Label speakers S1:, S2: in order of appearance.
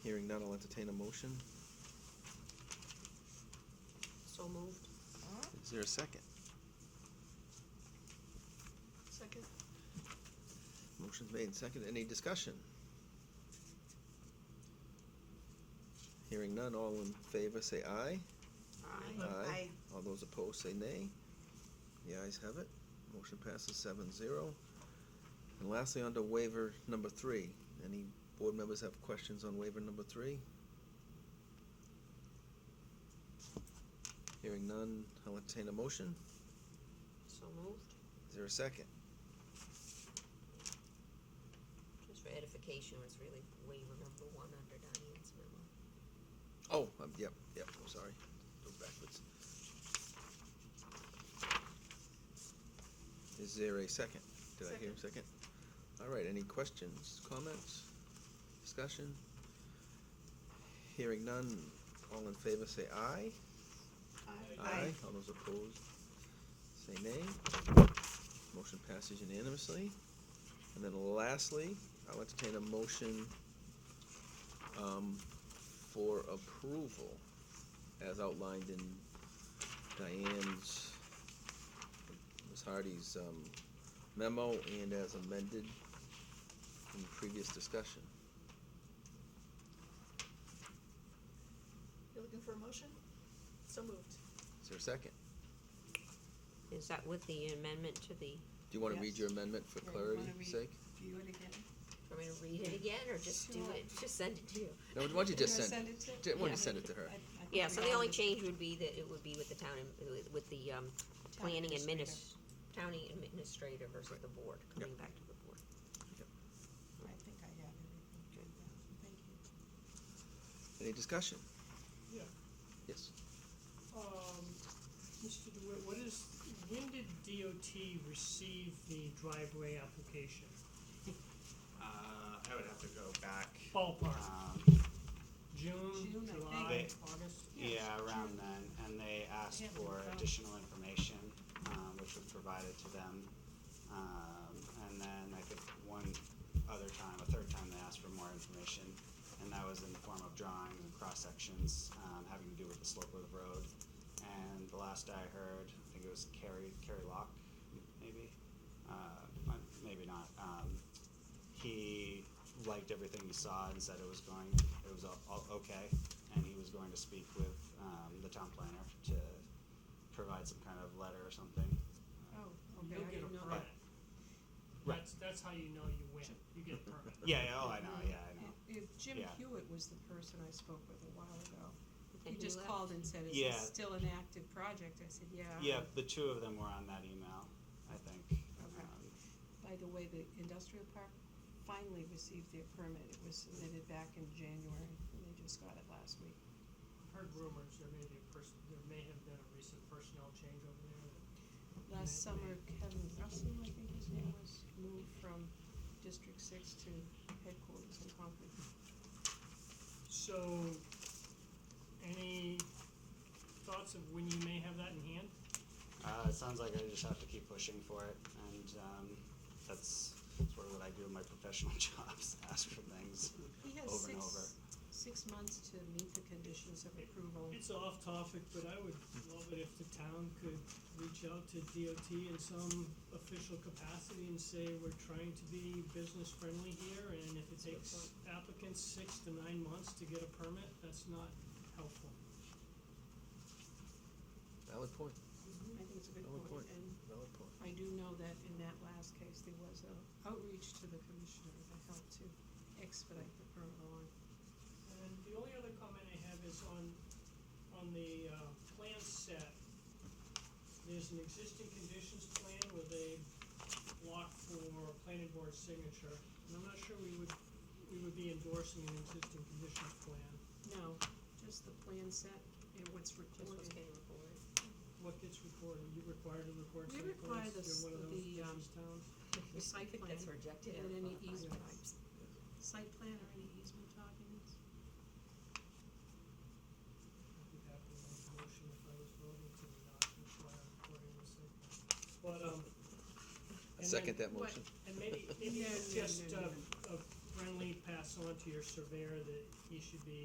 S1: Hearing none, I'll entertain a motion.
S2: So moved.
S1: Is there a second?
S2: Second.
S1: Motion's made and seconded. Any discussion? Hearing none, all in favor say aye.
S2: Aye.
S1: All those opposed say nay. The ayes have it. Motion passes seven zero. And lastly, under waiver number three, any board members have questions on waiver number three? Hearing none, I'll entertain a motion.
S2: So moved.
S1: Is there a second?
S2: Just for edification, it's really waiver number one under Diane's memo.
S1: Oh, um, yep, yep, I'm sorry. Go backwards. Is there a second? Did I hear a second? All right, any questions, comments, discussion? Hearing none, all in favor say aye. All those opposed say nay. Motion passes unanimously. And then lastly, I'll entertain a motion um, for approval as outlined in Diane's, Ms. Hardy's um, memo and as amended in previous discussion.
S3: You're looking for a motion? So moved.
S1: Is there a second?
S2: Is that with the amendment to the,
S1: Do you want to read
S3: Yes.
S1: your amendment for
S3: Yeah, you
S1: clarity's
S3: wanna read-
S1: sake?
S3: View it again.
S2: for me to read it again, or just do
S3: Sure.
S2: it, just send it to you?
S1: No, why don't you just send,
S3: it to?
S1: ju- why don't
S2: Yeah.
S1: you send it to her?
S3: I- I think
S2: Yeah,
S3: we
S2: so the
S3: all
S2: only
S3: did.
S2: change would be that it would be with the town, and- with the, um,
S3: Town
S2: planning
S3: administrator.
S2: adminis, county administrator versus
S1: Right.
S2: the board, coming back to the board.
S3: I think I have everything. Yeah, Thank you.
S1: Any discussion?
S4: Yeah,
S1: Yes.
S4: um, Mr. DeWitt, what is, when did DOT receive the driveway application?
S5: Uh, I would have to go back.
S4: Ballpark,
S5: Um,
S4: June,
S3: June, I
S4: July,
S5: think.
S4: August?
S5: yeah, around then, and they asked
S3: Yeah,
S5: for
S4: um,
S5: additional information, um, which was provided to them. Um, and then I think one other time, a third time, they asked for more information, and that was in the form of drawings and cross sections, um, having to do with the slope of the road. And the last I heard, I think it was Carrie, Carrie Locke, maybe, uh, maybe not, um, he liked everything he saw and said it was going, it was all, all okay, and he was going to speak with um, the town planner to provide some kind of letter or something. Um,
S3: Oh, okay,
S4: You'll
S3: I
S4: get a
S3: didn't know
S4: permit.
S3: that.
S5: Right.
S4: That's, that's how you know you win, you get a permit.
S5: Yeah, yeah, oh, I know, yeah, I know.
S3: If if Jim
S5: Yeah.
S3: Hewitt was the person I spoke with a while ago, he
S2: And he
S3: just
S2: left.
S3: called and said, is
S5: Yeah.
S3: this still an active project? I said, yeah.
S5: Yeah, the two of them were on that email, I think.
S3: Okay.
S5: Um,
S3: By the way, the industrial park finally received their permit. It was submitted back in January, and they just got it last week.
S4: Heard rumors, there may be a person, there may have been a recent personnel change over there.
S3: Last
S4: Right.
S3: summer, Kevin Russell, I think his name was, moved from District Six to headquarters in Concord.
S4: So, any thoughts of when you may have that in hand?
S5: Uh, it sounds like I just have to keep pushing for it, and um, that's sort of what I do in my professional jobs, ask for things.
S3: He has
S5: Over and over.
S3: six, six months to meet the conditions of approval.
S4: It's off topic, but I would love it if the town could reach out to DOT in some official capacity and say, we're trying to be business friendly here, and if it takes applicants six to nine months to get a permit, that's not helpful.
S1: Valid point,
S3: I think it's a good
S1: Valid
S3: point,
S1: point.
S3: and
S1: valid point.
S3: I do know that in that last case, there was a outreach to the commissioner that helped to expedite the permit along.
S4: And the only other comment I have is on, on the, uh, plan set. There's an existing conditions plan with a block for planning board signature, and I'm not sure we would, we would be endorsing an existing conditions plan.
S3: No, just the plan set and what's
S2: Just what's
S3: recorded.
S2: getting recorded.
S4: What gets recorded, you required to record
S3: We
S4: site
S3: require
S4: plans,
S3: the s-
S4: you're one of those
S3: the, um,
S4: business towns.
S3: The site plan
S2: That's rejected.
S3: and any
S2: Well,
S3: easement
S2: fine.
S3: types. Site plan or any easement documents?
S4: I'd be happy to make a motion if I was voting to not require recording the site plan. But, um,
S1: I
S4: and then-
S1: second that
S3: what-
S1: motion.
S4: And maybe,
S3: Yeah,
S4: maybe it's
S3: yeah,
S4: just
S3: yeah,
S4: uh,
S3: yeah.
S4: a Brenly pass on to your surveyor that he should be